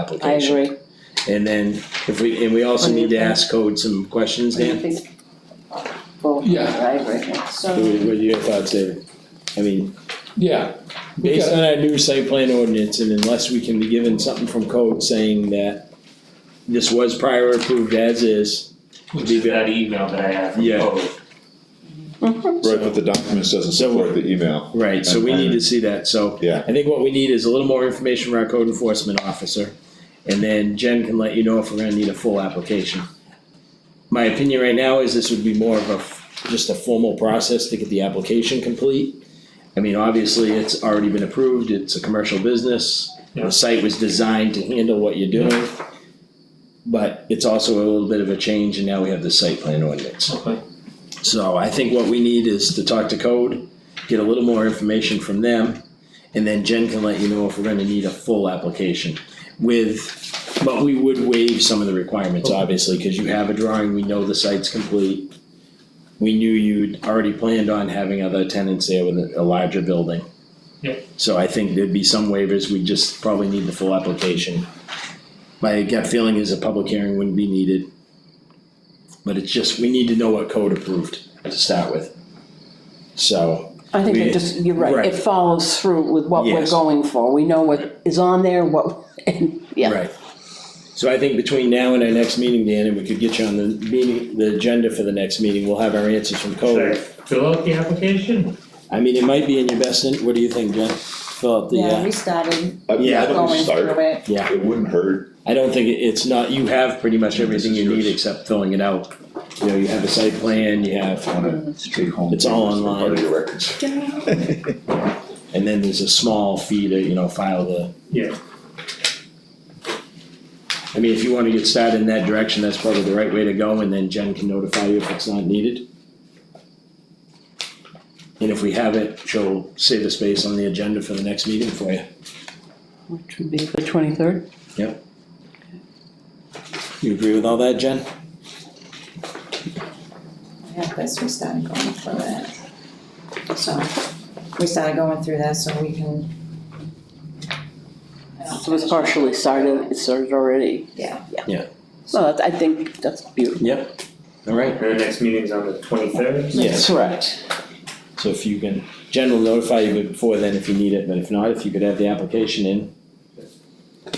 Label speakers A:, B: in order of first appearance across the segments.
A: I
B: application.
A: agree.
B: And then if we, and we also
A: What do you
B: need to
A: think?
B: ask code some questions, Dan.
A: Well,
C: Yeah.
A: I agree.
B: What
D: So,
B: what are your thoughts, David? I mean,
C: Yeah, we
B: based
C: got,
B: on our new site plan ordinance and unless we can be given something from code saying that this was prior approved as is,
E: Which is that email that I have from
B: Yeah.
E: Code.
F: Right, but the documents doesn't
B: So-
F: support the email.
B: right, so we need to see that, so.
F: Yeah.
B: I think what we need is a little more information from our code enforcement officer. And then Jen can let you know if we're gonna need a full application. My opinion right now is this would be more of a, f- just a formal process to get the application complete. I mean, obviously, it's already been approved, it's a commercial business,
E: Yeah.
B: the site was designed to handle what you're doing. But it's also a little bit of a change and now we have the site plan ordinance.
E: Okay.
B: So I think what we need is to talk to code, get a little more information from them. And then Jen can let you know if we're gonna need a full application with, but we would waive some of the requirements, obviously, cause you have a drawing, we know the site's complete. We knew you'd already planned on having other tenants there with a a larger building.
E: Yep.
B: So I think there'd be some waivers, we just probably need the full application. My gut feeling is a public hearing wouldn't be needed. But it's just, we need to know what code approved to start with. So,
A: I think
B: We-
A: it just, you're right,
B: Right.
A: it follows through with what we're
B: Yes.
A: going for, we know what is on there, what, and, yeah.
B: Right. So I think between now and our next meeting, Dan, and we could get you on the meeting, the agenda for the next meeting, we'll have our answers from
E: Should I
B: code.
E: fill out the application?
B: I mean, it might be in your best, in- what do you think, Jen? Fill out the,
D: yeah,
B: uh,
D: we started
F: I-
B: Yeah,
F: I don't
D: going
F: start.
D: through it.
B: yeah,
F: It wouldn't hurt,
B: I don't think, it- it's not, you have pretty much everything you
F: This is
B: need
F: yours.
B: except filling it out. You know, you have a site plan, you have,
F: wanna
D: Mm.
F: take home.
B: It's all
F: papers for
B: online.
F: part of your records.
B: and then there's a small fee to, you know, file the.
E: Yeah.
B: I mean, if you wanna get started in that direction, that's probably the right way to go, and then Jen can notify you if it's not needed. And if we have it, she'll save a space on the agenda for the next meeting for you.
A: Which would be the twenty-third?
B: You agree with all that, Jen?
D: Yeah, this, we started going through it. So, we started going through that so we can. I don't
A: So it's partially started, it started already,
D: Yeah.
A: so that's- I think that's beautiful.
B: All right.
E: And the next meeting's on the twenty-third?
B: Yes.
A: Correct.
B: So if you can, Jen will notify you before then if you need it, but if not, if you could have the application in.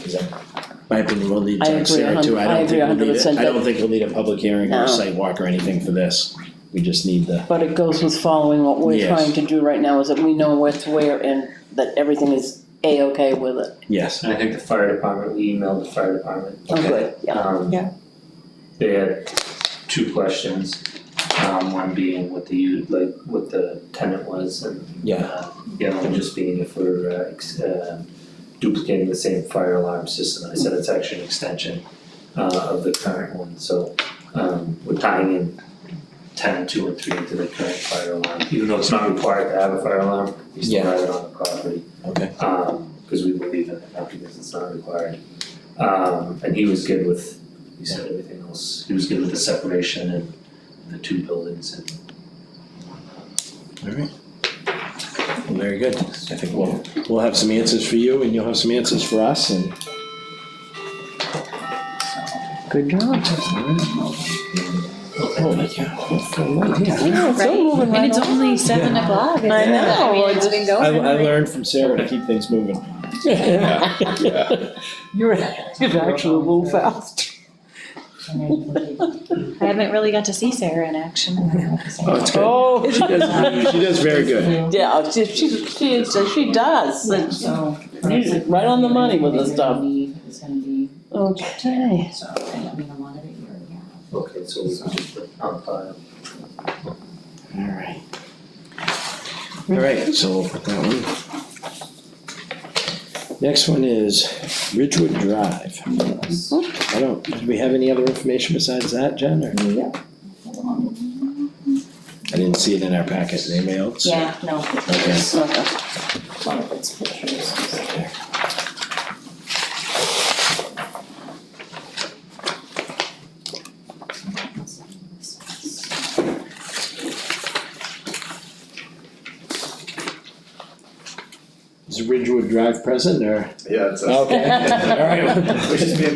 B: Is that- My opinion, we'll need
A: I
B: to
A: agree a
B: Sarah
A: hun-
B: too, I
A: I
B: don't
A: agree
B: think
A: a
B: we'll
A: hundred
B: need it,
A: percent
B: I don't think we'll need a public hearing or
A: No.
B: a site walk or anything for this, we just need the.
A: But it goes with following what we're
B: Yes.
A: trying to do right now, is that we know where to where and that everything is A-okay with it.
B: Yes.
E: And I think the fire department, we emailed the fire department,
A: Oh,
B: Okay.
A: good, yeah.
E: um.
D: Yeah.
E: They had two questions, um, one being what the, u- like, what the tenant was and.
B: Yeah.
E: uh, The other one just being if we're, uh, ex- uh, duplicating the same fire alarm system, I said it's actually an extension, uh, of the current one, so, um, we're tying in ten, two, and three into the current fire alarm, even though it's not required to have a fire alarm, we still
B: Yeah.
E: have it on the property.
B: Okay.
E: Um, cause we believe in it, not because it's not required. Um, and he was good with, he said everything else, he was good with the separation and the two buildings and.
B: Alright. Very good, I think we'll, we'll have some answers for you and you'll have some answers for us and.
A: Good job.
B: Oh, yeah.
A: Yeah, it's all moving right
D: And it's
A: along.
D: only seven o'clock, isn't it?
A: I know,
D: I mean, it's
A: it's-
D: been going.
B: I, I learned from Sarah to keep things moving.
F: Yeah, yeah.
A: You're, you've actually moved fast.
D: I haven't really got to see Sarah in action.
B: Oh, it's good.
A: Oh.
B: She does, she does very good.
A: Yeah, she, she, she, is- she does, and she-
D: So.
A: You're right on the money with this stuff.
D: It's gonna be,
A: okay.
D: so, I mean, a lot of it, you're, yeah.
E: Okay, so we can just put on file.
B: Alright. Alright, so we'll put that one. Next one is Ridgewood Drive. I don't, did we have any other information besides that, Jen, or? I didn't see it in our packet, anybody else?
D: Yeah, no,
B: Okay.
D: one of its pictures.
B: Is
E: Ridgewood Drive present or?
B: Yeah, it's.
E: Okay, all right.
B: Which is being